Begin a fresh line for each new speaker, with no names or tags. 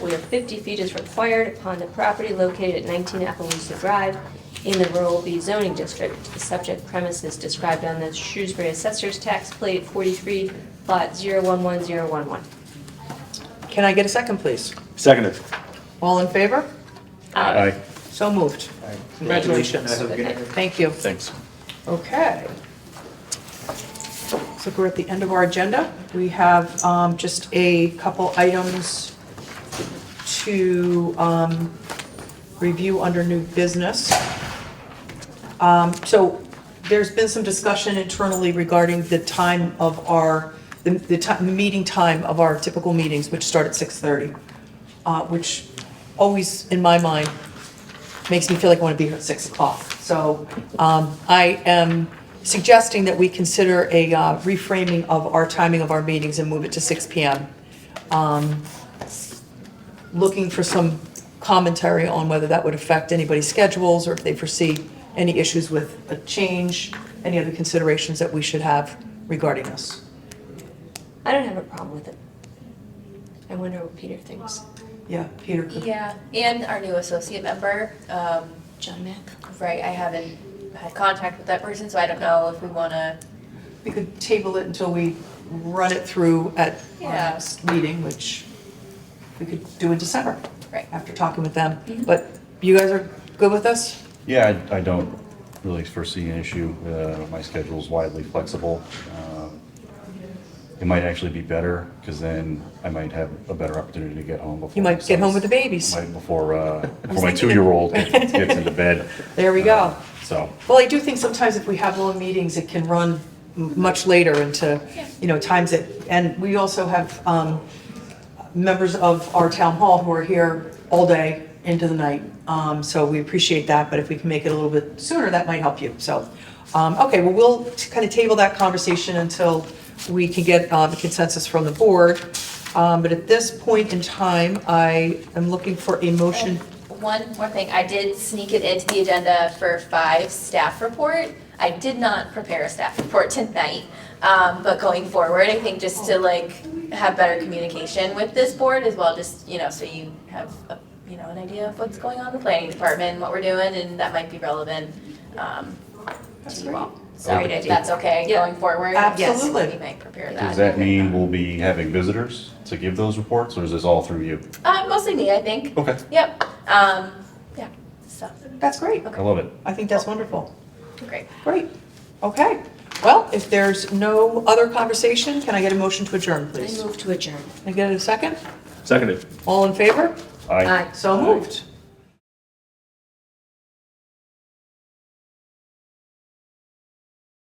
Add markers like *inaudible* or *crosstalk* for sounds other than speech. where 50 feet is required upon the property located at 19 Appaloosa Drive in the Rural B zoning district. The subject premise is described on the Shrewsbury Assessor's Tax Plate 43, Lot 011011.
Can I get a second, please?
Seconded.
All in favor?
Aye.
So moved. Congratulations. Thank you.
Thanks.
Okay. So we're at the end of our agenda. We have um, just a couple items to um, review under new business. Um, So there's been some discussion internally regarding the time of our, the the ti- meeting time of our typical meetings, which start at 6:30, uh, which always, in my mind, makes me feel like I want to be here at 6 o'clock. So um, I am suggesting that we consider a uh, reframing of our timing of our meetings and move it to 6 PM. Um, Looking for some commentary on whether that would affect anybody's schedules or if they foresee any issues with a change, any other considerations that we should have regarding this.
I don't have a problem with it. I wonder what Peter thinks.
Yeah, Peter? could-
Yeah, and our new associate member, um,
John Mack?
right, I haven't had contact with that person, so I don't know if we wanna,
We could table it until we run it through at our
Yeah.
next meeting, which we could do in December.
Right. Mm-hmm.
After talking with them. But you guys are good with us?
Yeah, I, I don't really foresee an issue. Uh, my schedule's widely flexible. Um, It might actually be better, because then I might have a better opportunity to get home before.
You
my
might get home
son's-
with the babies.
Might
*laughs*
before, uh, before my
thinking-
two-year-old gets gets into bed.
*laughs* There we
Uh,
go.
So,
Well, I do think sometimes if we have long meetings, it can run m- much later into, you know, times that, and we also have um, members of our town hall who are here all day into the night. Um, So we appreciate that, but if we can make it a little bit sooner, that might help you. So, um, okay, well, we'll kind of table that conversation until we can get um, consensus from the board. Um, But at this point in time, I am looking for a motion.
one more thing, I did sneak it into the agenda for five staff report. I did not prepare a staff report tonight, um, but going forward, I think just to like have better communication with this board as well, just, you know, so you have, a- you know, an idea of what's going on in the planning department, what we're doing, and that might be relevant, um, to you all. So
Great
if
idea.
that's okay
Yeah.
going forward.
Absolutely.
Yes, we might prepare that.
does that mean we'll be having visitors to give those reports, or is this all through you?
Uh, mostly me, I think.
Okay,
Yep, um, yeah, so,
That's great.
I love it.
I think that's wonderful.
great.
Great, okay. Well, if there's no other conversation, can I get a motion to adjourn,
I
please?
move to adjourn.
Can I get a second?
Seconded.
All in favor?
Aye.
Aye.
So moved.